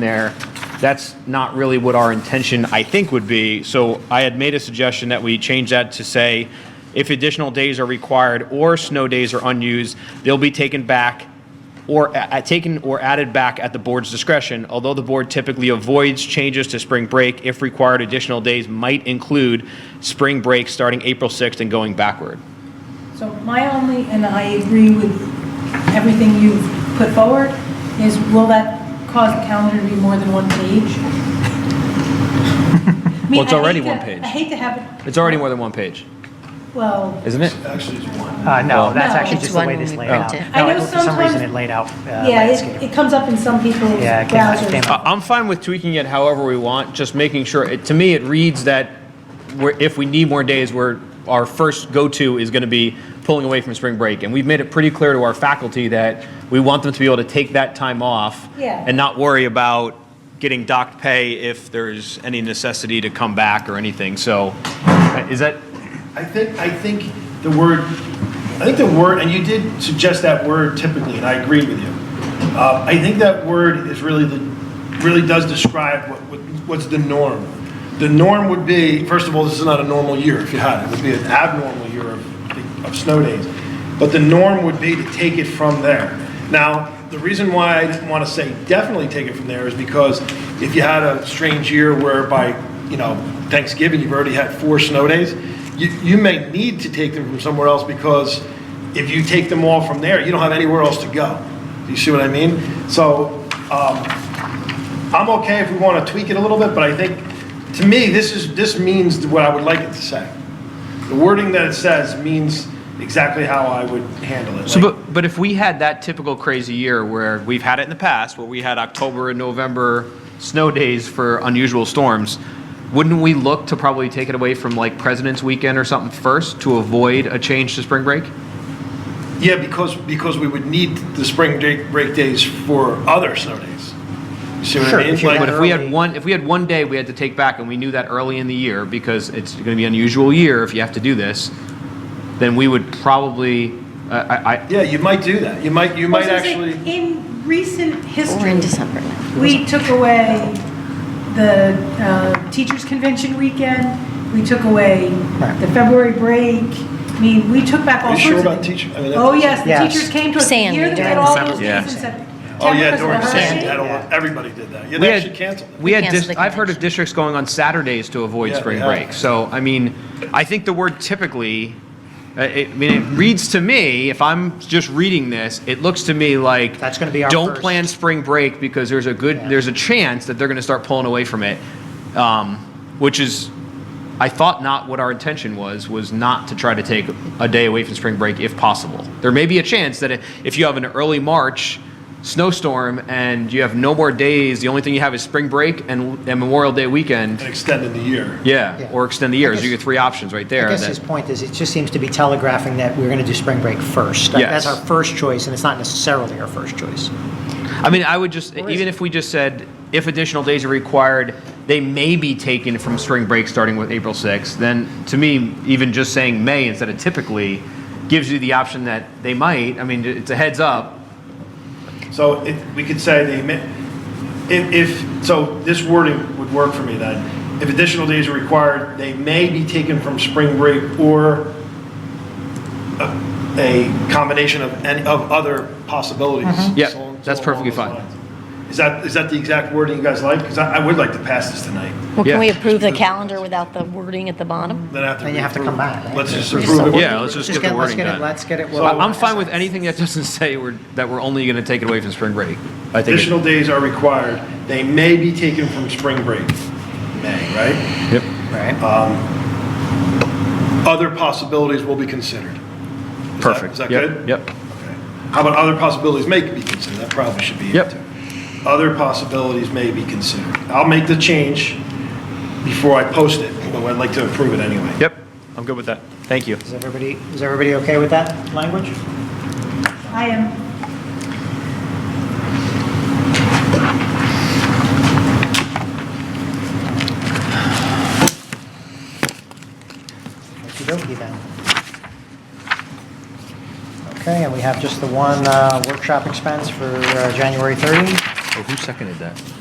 there, that's not really what our intention, I think, would be. So I had made a suggestion that we change that to say, if additional days are required or snow days are unused, they'll be taken back or a- a- taken or added back at the board's discretion. Although the board typically avoids changes to spring break, if required, additional days might include spring break starting April 6th and going backward. So my only, and I agree with everything you've put forward, is will that cause the calendar to be more than one page? I mean, Well, it's I hate already to- one page. I hate to have it, It's already more than one page, well, isn't it? Uh, no, that's No, actually it's just the one way when this we laid out. print it. I No, know it- for some reason sometimes- it laid out uh, yeah, it, landscape. it comes up in some people's Yeah, it came out- it came browsers. out. I- I'm fine with tweaking it however we want, just making sure, it- to me, it reads that we're, if we need more days, we're, our first go-to is gonna be pulling away from spring break. And we've made it pretty clear to our faculty that we want them to be able to take that time off Yeah. and not worry about getting docked pay if there's any necessity to come back or anything, so, uh, is that, I think, I think the word, I think the word, and you did suggest that word typically, and I agree with you. Uh, I think that word is really the, really does describe what, what- what's the norm. The norm would be, first of all, this is not a normal year if you had it, it would be an abnormal year of, of snow days. But the norm would be to take it from there. Now, the reason why I didn't want to say definitely take it from there is because if you had a strange year where by, you know, Thanksgiving, you've already had four snow days, you, you may need to take them from somewhere else because if you take them all from there, you don't have anywhere else to go. Do you see what I mean? So um, I'm okay if we want to tweak it a little bit, but I think, to me, this is, this means what I would like it to say. The wording that it says means exactly how I would handle it. So, Like- but, but if we had that typical crazy year where we've had it in the past, where we had October and November snow days for unusual storms, wouldn't we look to probably take it away from like President's Weekend or something first to avoid a change to spring break? Yeah, because, because we would need the spring break, break days for other snow days. You See what Sure, I mean? if you Like- But if we had Early. one, if we had one day we had to take back and we knew that early in the year because it's going to be an unusual year if you have to do this, then we would probably, uh, I, I, Yeah, you might do that. You might, you I was might gonna say, actually, In recent Or in history, December. we took away the uh, Teachers Convention weekend, we took away Right. the February break. I mean, we took back all Are you sorts of. sure about things. teacher- I mean, that- Oh, yes, the Yes. teachers came to us. the Sandy year that we had during all December. those Yeah. meetings in September oh, yeah, because of during the Sandy, hurricane. I don't, everybody did that. Yeah, We they had- actually canceled it. We had, Canceled dis- the I've heard of convention. districts going on Saturdays to avoid Yeah, spring yeah. break. So, I mean, I think the word typically, uh, it- I mean, it reads to me, if I'm just reading this, it looks to me like. That's gonna be our Don't first. plan spring break because there's a good, Yeah. there's a chance that they're gonna start pulling away from it. Um, Which is, I thought not what our intention was, was not to try to take a day away from spring break if possible. There may be a chance that if you have an early March snowstorm and you have no more days, the only thing you have is spring break and, and Memorial Day weekend, And extended the year. yeah, Yeah. or extend the years. you get three options right there. I guess that- his point is, it just seems to be telegraphing that we're going to do spring break first. That- That's Yes. our first choice, and it's not necessarily our first choice. I mean, I would just, even if we just said, if additional days are required, they may be taken from spring break starting with April 6th, then to me, even just saying may instead of typically gives you the option that they might. I mean, it's a heads up. So if, we could say the, admi- if, if, so this wording would work for me then. If additional days are required, they may be taken from spring break or a- a combination of, any- of other possibilities. Mm-hmm. Yeah, So- so that's perfectly along those fine. lines. Is that, is that the exact wording you guys like? Because I, I would like to pass this tonight. Well, Yeah. can we approve the calendar without the wording at the bottom? Then I have to. Then you have to approve come it. back, right? Let's just Just approve it. Yeah, let's just get the let's wording get it- done. Let's get it. I- I'm fine with anything that doesn't say we're, that we're only going to take it away from spring break. I think. it- Additional days are required. They may be taken from spring break. May, right? Yep. Uh, Right. other possibilities will be considered. Is that- Perfect. Is that Yep, good? Yep. How about other possibilities may be considered? That probably should be. in Yep. too. Other possibilities may be considered. I'll make the change before I post it, but I'd like to approve it anyway. Yep. I'm good with that. Thank you. Is everybody, is everybody okay with that language? I am, Okey-dokey then. Okay, and we have just the one uh, workshop expense for uh, January 30. Oh, who seconded that?